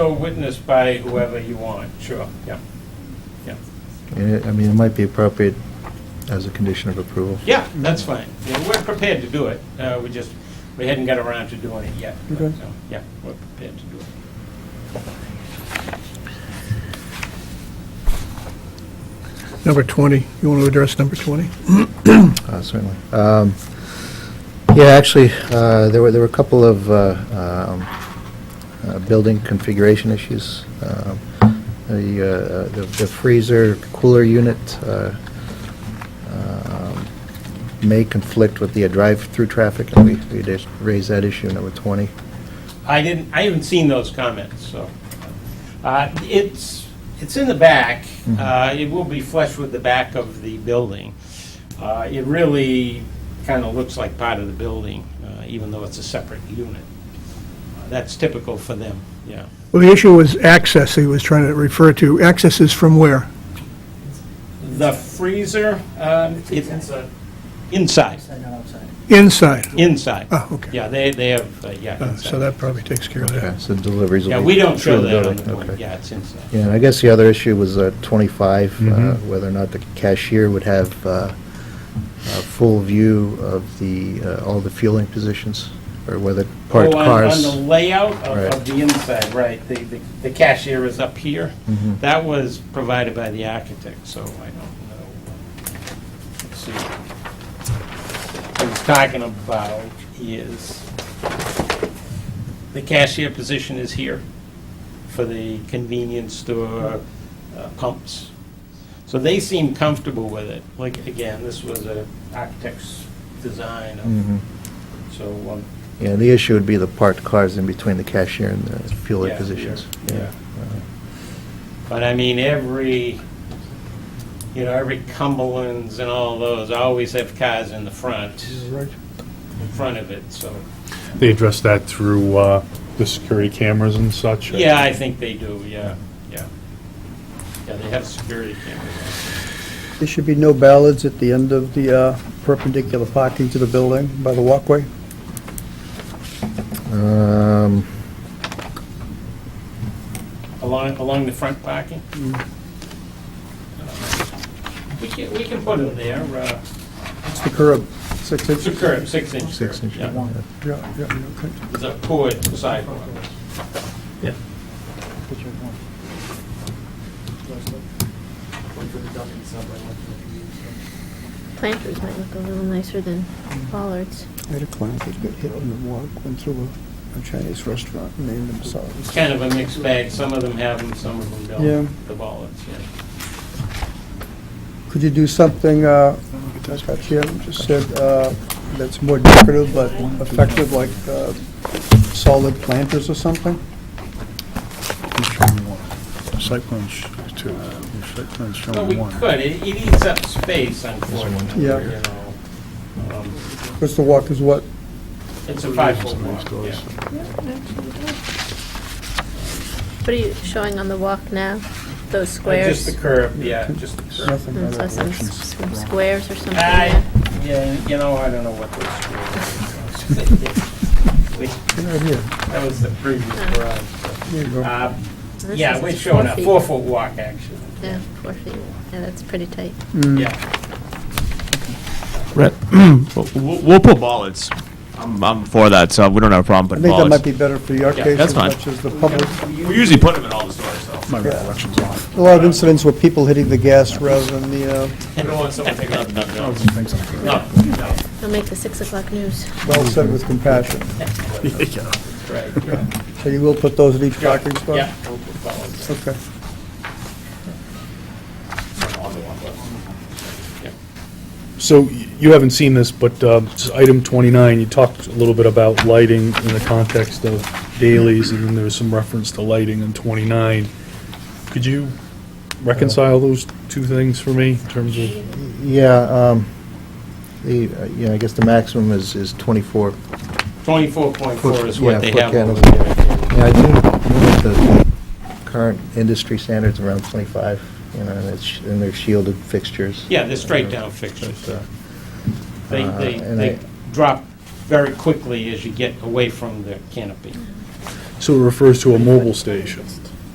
So witnessed by whoever you want, sure, yeah, yeah. And it- I mean, it might be appropriate as a condition of approval. Yeah, that's fine. Yeah, We're prepared to do it. Uh, We just, we hadn't got around to doing it yet. but, Okay. so, Yeah, we're prepared to do it. Number 20, you want to address number 20? Uh, Certainly. Um, Yeah, actually, uh, there were, there were a couple of uh, um, uh, building configuration issues. Um, The uh, the the freezer cooler unit uh, um, may conflict with the drive-through traffic, and we we did raise that issue, number 20. I didn't, I haven't seen those comments, so. Uh, It's, it's in the back. Uh, It will be flush with the back of the building. Uh, It really kind of looks like part of the building, uh, even though it's a separate unit. Uh, That's typical for them, yeah. Well, the issue was access he was trying to refer to. Access is from where? The freezer, um, it's inside, Inside. inside. Oh, okay. Yeah, they, they have, uh, yeah, Uh, So inside. that probably takes care of Okay, that. So deliveries will Yeah, be... we don't through show that on building. the one, Okay. yeah, it's inside. Yeah, and I guess the other issue was uh, 25, uh, Mm-hmm. Mhm. whether or not the cashier would have uh, a full view of the, uh, all the fueling positions, or whether parked Oh, on- cars. On the layout of- of Right. the inside, right, the- the the cashier is up here. Mhm. That was provided by the architect, so I don't know. Let's see. What he's talking about is, the cashier position is here for the convenience store uh, pumps. So they seem comfortable with it. Like, again, this was an architect's design, of- Mhm. so um, Yeah, the issue would be the parked cars in between the cashier and the fueling Yeah, positions. yeah, yeah. But I mean, every, you know, every Cumberland's and all those always have cars in the front, in front of it, so. They address that through uh, the security cameras and such? Yeah, I think they do, yeah, yeah. Yeah, they have security cameras. There should be no ballards at the end of the uh, perpendicular parking to the building by the walkway? Um, Along, along the front parking? We can, we can put them there, uh, It's the curb, six it's a inches. curb, six inch curb. Six inch, yeah. yeah. Yeah, yeah, okay. It's a poured sidewalk. Yeah. Planters might look a little nicer than bollards. I had a client that got hit on the walk, went through a- a Chinese restaurant, and named It's themselves. kind of a mixed bag. Some of them have them, some of them Yeah. don't, the ballards, yeah. Could you do something, uh, like Jim just said, uh, that's more decorative but effective, like uh, solid planters or something? Site plans, too. Site plans Well, we could, it it eats up space, unfortunately, you Yeah. know. Um, Because the walk is what, It's a five-foot walk, yeah. What are you showing on the walk now? Those Uh, Just squares? the curb, yeah, just the curb. nothing. Mm, so some s- some squares or something? I, yeah. yeah, you know, I don't know what those squares are. Right here, That was the previous garage. so. here you go. Uh, Well, this Yeah, is we're four showing a feet. four-foot walk, actually. Yeah, four feet. Yeah, that's pretty tight. Mm. Yeah, Right. We'll- We'll we'll put ballards. I'm, I'm for that, so we don't have a problem I putting think that ballards. might be better for your Yeah, case that's as fine. much as the public. We usually put them in all the stores, though. My recollection's off. A lot of incidents with people hitting the gas rather than the, uh, We don't want someone taking out the dump truck. Things like that. no, no, It'll make the six o'clock news. well said with compassion. right, yeah. So you will put those in each parking spot? Yeah, we'll put ballards. Okay. So y- you haven't seen this, but uh, s- item 29, you talked a little bit about lighting in the context of dailies, and then there was some reference to lighting in 29. Could you reconcile those two things for me in terms of, Yeah, um, the, uh, yeah, I guess the maximum is, is 24 Twenty-four point four is Yeah, what they foot have over candles. there. Yeah, I do know that the current industry standard's around 25, you know, and it's, and they're shielded fixtures. Yeah, they're straight down But, fixtures. uh, They, uh, they, and they I- drop very quickly as you get away from the canopy. So it refers to a mobile station.